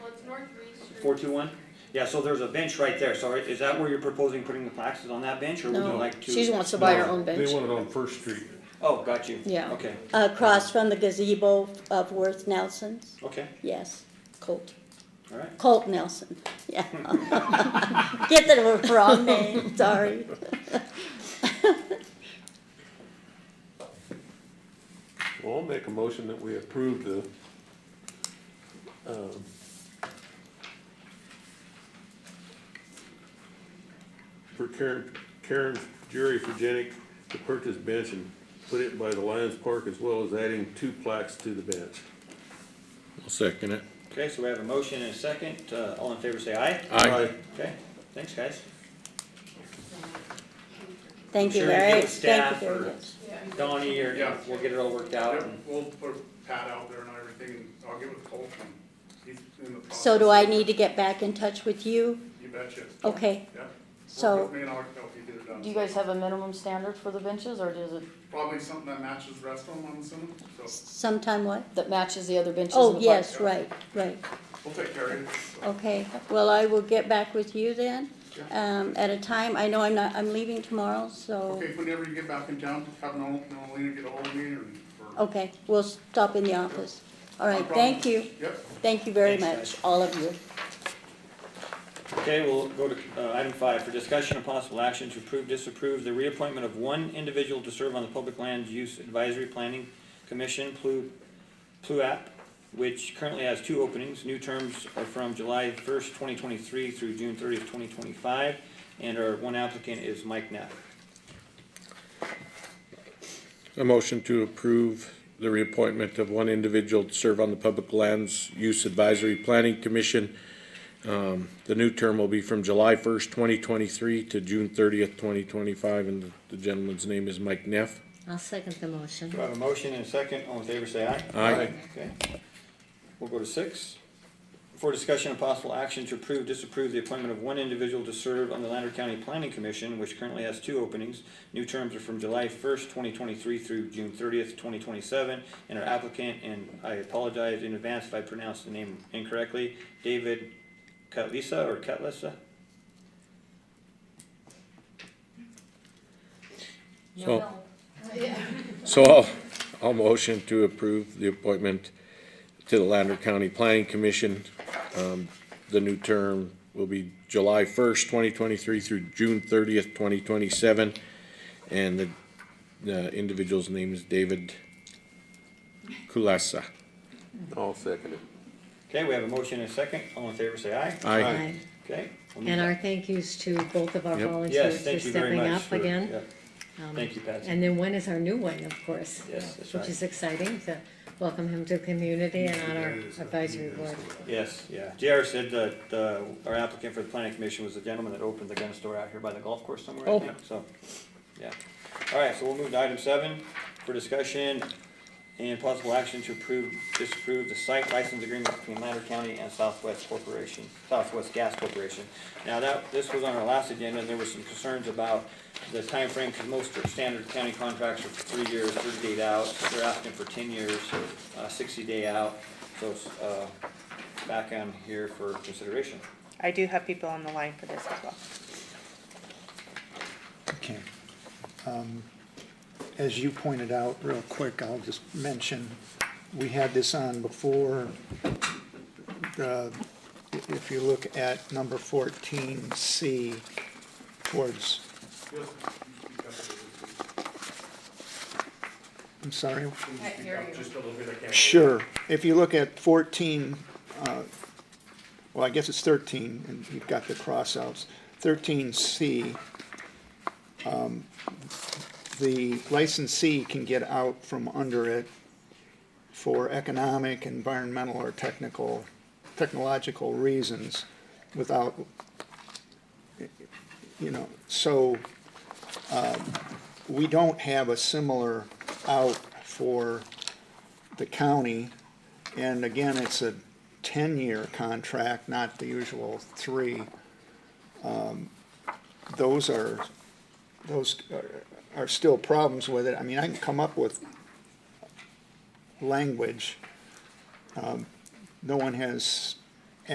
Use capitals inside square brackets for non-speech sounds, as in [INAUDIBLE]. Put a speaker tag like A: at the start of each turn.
A: Four two one? Yeah, so there's a bench right there, so is that where you're proposing putting the plaques, is on that bench, or would you
B: No.
A: like to?
B: She wants to buy her
C: No,
B: own bench.
C: They want it on First Street.
A: Oh, got you.
B: Yeah.
A: Okay,
D: Across from the gazebo of Worth Nelson's,
A: okay,
D: yes, Colt,
A: alright.
D: Colt Nelson, yeah. [LAUGHS] Get the wrong name, sorry.
C: Well, I'll make a motion that we approve the, um, for Karen, Karen Jerry Furgenic to purchase bench and put it by the Lions Park as well as adding two plaques to the bench.
E: I'll second it.
A: Okay, so we have a motion and a second, uh, all in favor say aye.
E: Aye.
A: Okay, thanks, guys.
D: Thank you
A: Sure, you
D: very,
A: get
D: thank you
A: staff
D: very
A: or-
D: much.
A: Donnie, or
F: Yeah.
A: we'll get it all worked out.
F: Yep,
A: and-
F: we'll put Pat out there and everything, and I'll get with Colt, and he's in the process.
D: So do I need to get back in touch with you?
F: You betcha.
D: Okay,
F: Yep. Work
D: So-
F: with me and I'll help you get it done.
G: Do you guys have a minimum standard for the benches or does it,
F: Probably something that matches the rest of them, I'm assuming, so
D: sometime what?
G: that matches the other benches? in
D: Oh,
G: the park?
D: yes, right, right,
F: we'll take care of it. so.
D: okay. Well, I will get back with you then,
F: Yeah.
D: um, at a time, I know I'm not, I'm leaving tomorrow, so,
F: Okay, whenever you get back in town, have Nolan, Nolan get ahold of me, and, or.
D: okay, we'll stop in the office. Oh, All
F: No
D: right,
F: problem.
D: thank you,
F: Yep.
D: thank you very
A: Thanks,
D: much, all of you.
A: Okay, we'll go to, uh, item five, for discussion of possible action to approve, disapprove the reappointment of one individual to serve on the Public Land Use Advisory Planning Commission, Plu, PLUAP, which currently has two openings, new terms are from July first, twenty twenty-three through June thirtieth, twenty twenty-five, and our one applicant is Mike Knapp.
E: A motion to approve the reappointment of one individual to serve on the Public Lands Use Advisory Planning Commission. Um, the new term will be from July first, twenty twenty-three to June thirtieth, twenty twenty-five, and the- the gentleman's name is Mike Neff.
H: I'll second the motion.
A: Do I have a motion and a second? All in favor, say aye.
E: Aye. Aye.
A: Okay. We'll go to six. For discussion of possible action to approve, disapprove the appointment of one individual to serve on the Lander County Planning Commission, which currently has two openings. New terms are from July first, twenty twenty-three through June thirtieth, twenty twenty-seven. And our applicant, and I apologize in advance if I pronounced the name incorrectly, David Cutlisa or Cutlissa?
E: So, [LAUGHS] so I'll, I'll motion to approve the appointment to the Lander County Planning Commission. Um, the new term will be July first, twenty twenty-three through June thirtieth, twenty twenty-seven. And the, the individual's name is David Kulasa.
C: I'll second it.
A: Okay, we have a motion and a second. All in favor, say aye.
E: Aye.
H: Aye.
A: Okay. we'll move
H: And
A: on.
H: our thank yous to both of our
E: Yep.
H: volunteers
A: Yes,
H: for
A: thank you very
H: stepping
A: much.
H: up
A: for-
H: again. Um,
A: yep. Thank you, Patsy.
H: And then one is our new one, of course.
A: Yes, that's right.
H: Which is exciting to welcome him to the community and on our advisory board.
A: Yes, yeah. JR said that, uh, our applicant for the planning commission was the gentleman that opened the gun store out here by the golf course somewhere, I
E: Oh.
A: think, so, yeah. All right, so we'll move to item seven for discussion and possible action to approve, disapprove the site license agreement between Lander County and Southwest Corporation, Southwest Gas Corporation. Now that, this was on our last agenda, and there was some concerns about the time frame because most are standard county contracts are for three years, thirty day out. They're asking for ten years, uh, sixty day out, so, it's, uh, back on here for consideration.
I: I do have people on the line for this as well.
J: Okay. Um, As you pointed out, real quick, I'll just mention, we had this on before. The- If you look at number fourteen C towards, I'm sorry.
F: Just a little bit, I can't.
J: Sure. If you look at fourteen, uh, well, I guess it's thirteen, and you've got the crossouts. Thirteen C, um, the licensee can get out from under it for economic, environmental, or technical, technological reasons without, you know, so, um, we don't have a similar out for the county. And again, it's a ten-year contract, not the usual three. Um, Those are, those are- are still problems with it. I mean, I can come up with language. Um, No one has